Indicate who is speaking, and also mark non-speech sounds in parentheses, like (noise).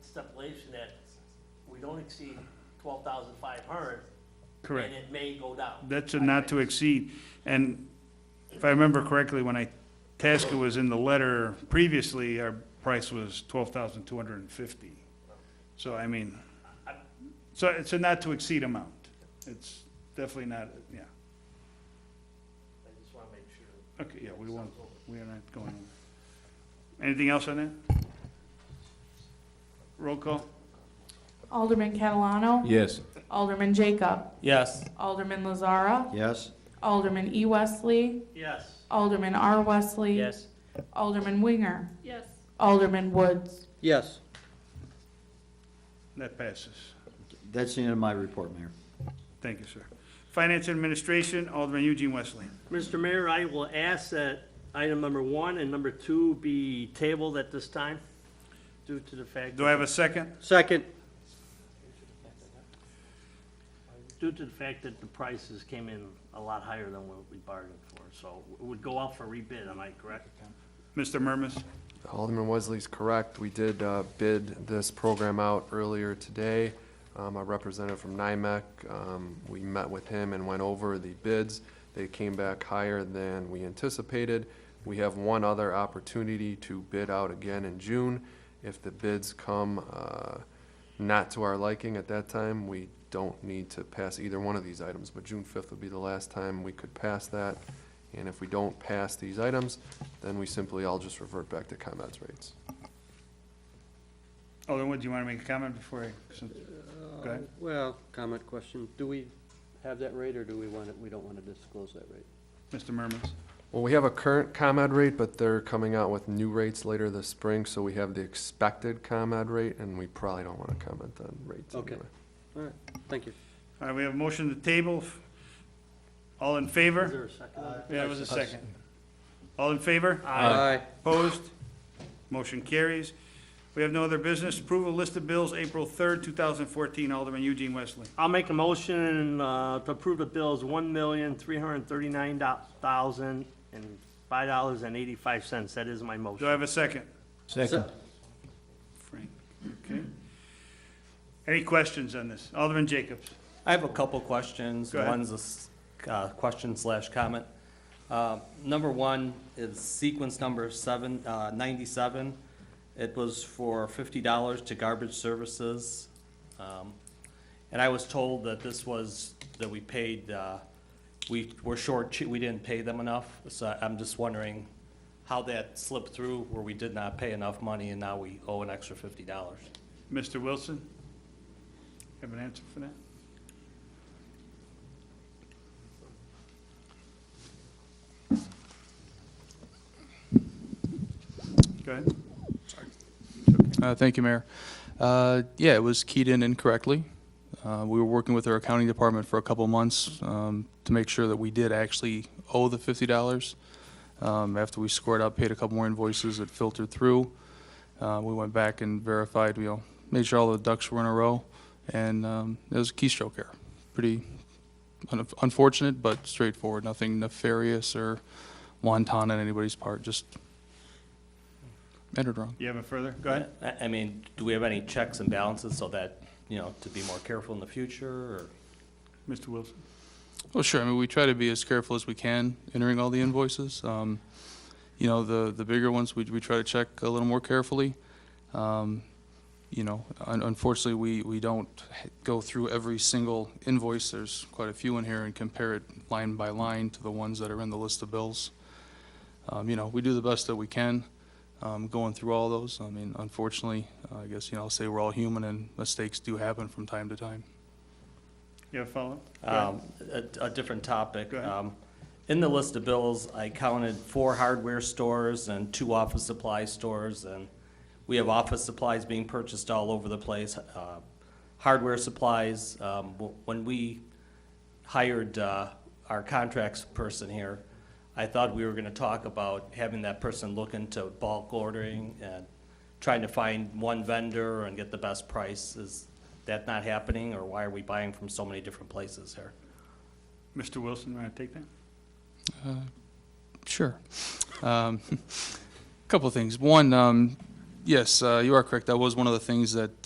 Speaker 1: stipulation that we don't exceed twelve thousand five hundred.
Speaker 2: Correct.
Speaker 1: And it may go down.
Speaker 2: That's a not to exceed. And if I remember correctly, when I, Tasca was in the letter previously, our price was twelve thousand two hundred and fifty. So I mean, so it's a not to exceed amount. It's definitely not, yeah.
Speaker 1: I just wanna make sure.
Speaker 2: Okay, yeah, we won't, we are not going. Anything else on that? Roll call?
Speaker 3: Alderman Catalano.
Speaker 4: Yes.
Speaker 3: Alderman Jacob.
Speaker 5: Yes.
Speaker 3: Alderman Lazara.
Speaker 4: Yes.
Speaker 3: Alderman E. Wesley.
Speaker 1: Yes.
Speaker 3: Alderman R. Wesley.
Speaker 5: Yes.
Speaker 3: Alderman Winger.
Speaker 6: yes,
Speaker 3: Alderman Woods.
Speaker 4: Yes.
Speaker 2: That passes.
Speaker 4: That's the end of my report, Mayor.
Speaker 2: Thank you, sir. Finance Administration, Alderman Eugene Wesley.
Speaker 1: Mr. Mayor, I will ask that item number one and number two be tabled at this time due to the fact.
Speaker 2: Do I have a second?
Speaker 4: Second.
Speaker 1: Due to the fact that the prices came in a lot higher than what we bargained for, so it would go out for rebid, am I correct?
Speaker 2: Mr. Murmas?
Speaker 7: Alderman Wesley's correct. We did uh, bid this program out earlier today. Um, A representative from NIMEC, um, we met with him and went over the bids. They came back higher than we anticipated. We have one other opportunity to bid out again in June. If the bids come uh, not to our liking at that time, we don't need to pass either one of these items. But June 5th would be the last time we could pass that. And if we don't pass these items, then we simply, I'll just revert back to comments rates.
Speaker 2: Alderman Wood, Oh, do you want to make a comment before I, since- go ahead.
Speaker 8: Uh, Well, comment, question, do we have that rate, or do we want it, we don't want to disclose that rate?
Speaker 2: Mr. Murmas?
Speaker 7: Well, we have a current ComEd rate, but they're coming out with new rates later this spring, so we have the expected ComEd rate, and we probably don't want to comment on rates
Speaker 8: Okay.
Speaker 7: anyway.
Speaker 8: All right, thank you.
Speaker 2: All right, we have a motion to table. All in
Speaker 1: Is
Speaker 2: favor?
Speaker 1: there a second?
Speaker 2: Yeah, it was a second. All in favor? Opposed? Motion carries. We have no other business. Approval list of bills, April 3rd, 2014. Alderman Eugene Wesley.
Speaker 1: I'll make a motion uh, to approve the bills, one million, three hundred and thirty-nine thousand and five dollars and eighty-five cents. That is my
Speaker 2: Do I
Speaker 1: motion.
Speaker 2: have a second?
Speaker 4: Second.
Speaker 2: Frank, okay. Any questions on this? Alderman Jacobs?
Speaker 5: I have a couple questions.
Speaker 2: Go ahead.
Speaker 5: One's a s- uh, question slash comment. Uh, Number one is sequence number seven, uh, 97. It was for $50 to garbage services. Um, And I was told that this was, that we paid, uh, we were short, we didn't pay them enough. So I'm just wondering how that slipped through where we did not pay enough money and now we owe an extra $50.
Speaker 2: Mr. Wilson? Have an answer for that? Go ahead.
Speaker 9: Uh, Thank you, Mayor. Uh, Yeah, it was keyed in incorrectly. Uh, We were working with our accounting department for a couple months um, to make sure that we did actually owe the $50. Um, After we scored up, paid a couple more invoices, it filtered through. Uh, We went back and verified, you know, made sure all the ducks were in a row, and um, it was a keystroke error. Pretty un- unfortunate, but straightforward, nothing nefarious or wanton on anybody's part, just entered wrong.
Speaker 2: You have a further? Go ahead.
Speaker 5: I, I mean, do we have any checks and balances so that, you know, to be more careful in the future, or?
Speaker 2: Mr. Wilson?
Speaker 9: Well, sure. I mean, we try to be as careful as we can entering all the invoices. Um, you know, the, the bigger ones, we, we try to check a little more carefully. Um, you know, un- unfortunately, we, we don't h- go through every single invoice. There's quite a few in here and compare it line by line to the ones that are in the list of bills. Um, you know, we do the best that we can, um, going through all those. I mean, unfortunately, uh, I guess, you know, I'll say we're all human and mistakes do happen from time to time.
Speaker 2: You have a follow-up? Go ahead.
Speaker 5: Um, A a different topic.
Speaker 2: Go ahead.
Speaker 5: Um, In the list of bills, I counted four hardware stores and two office supply stores, and we have office supplies being purchased all over the place. uh, Hardware supplies, um, w- when we hired uh, our contracts person here, I thought we were going to talk about having that person look into bulk ordering and trying to find one vendor and get the best price. Is that not happening, or why are we buying from so many different places here?
Speaker 2: Mr. Wilson, want to take that?
Speaker 9: Sure. Um, (laughs) Couple of things. One, um, yes, uh, you are correct. That was one of the things that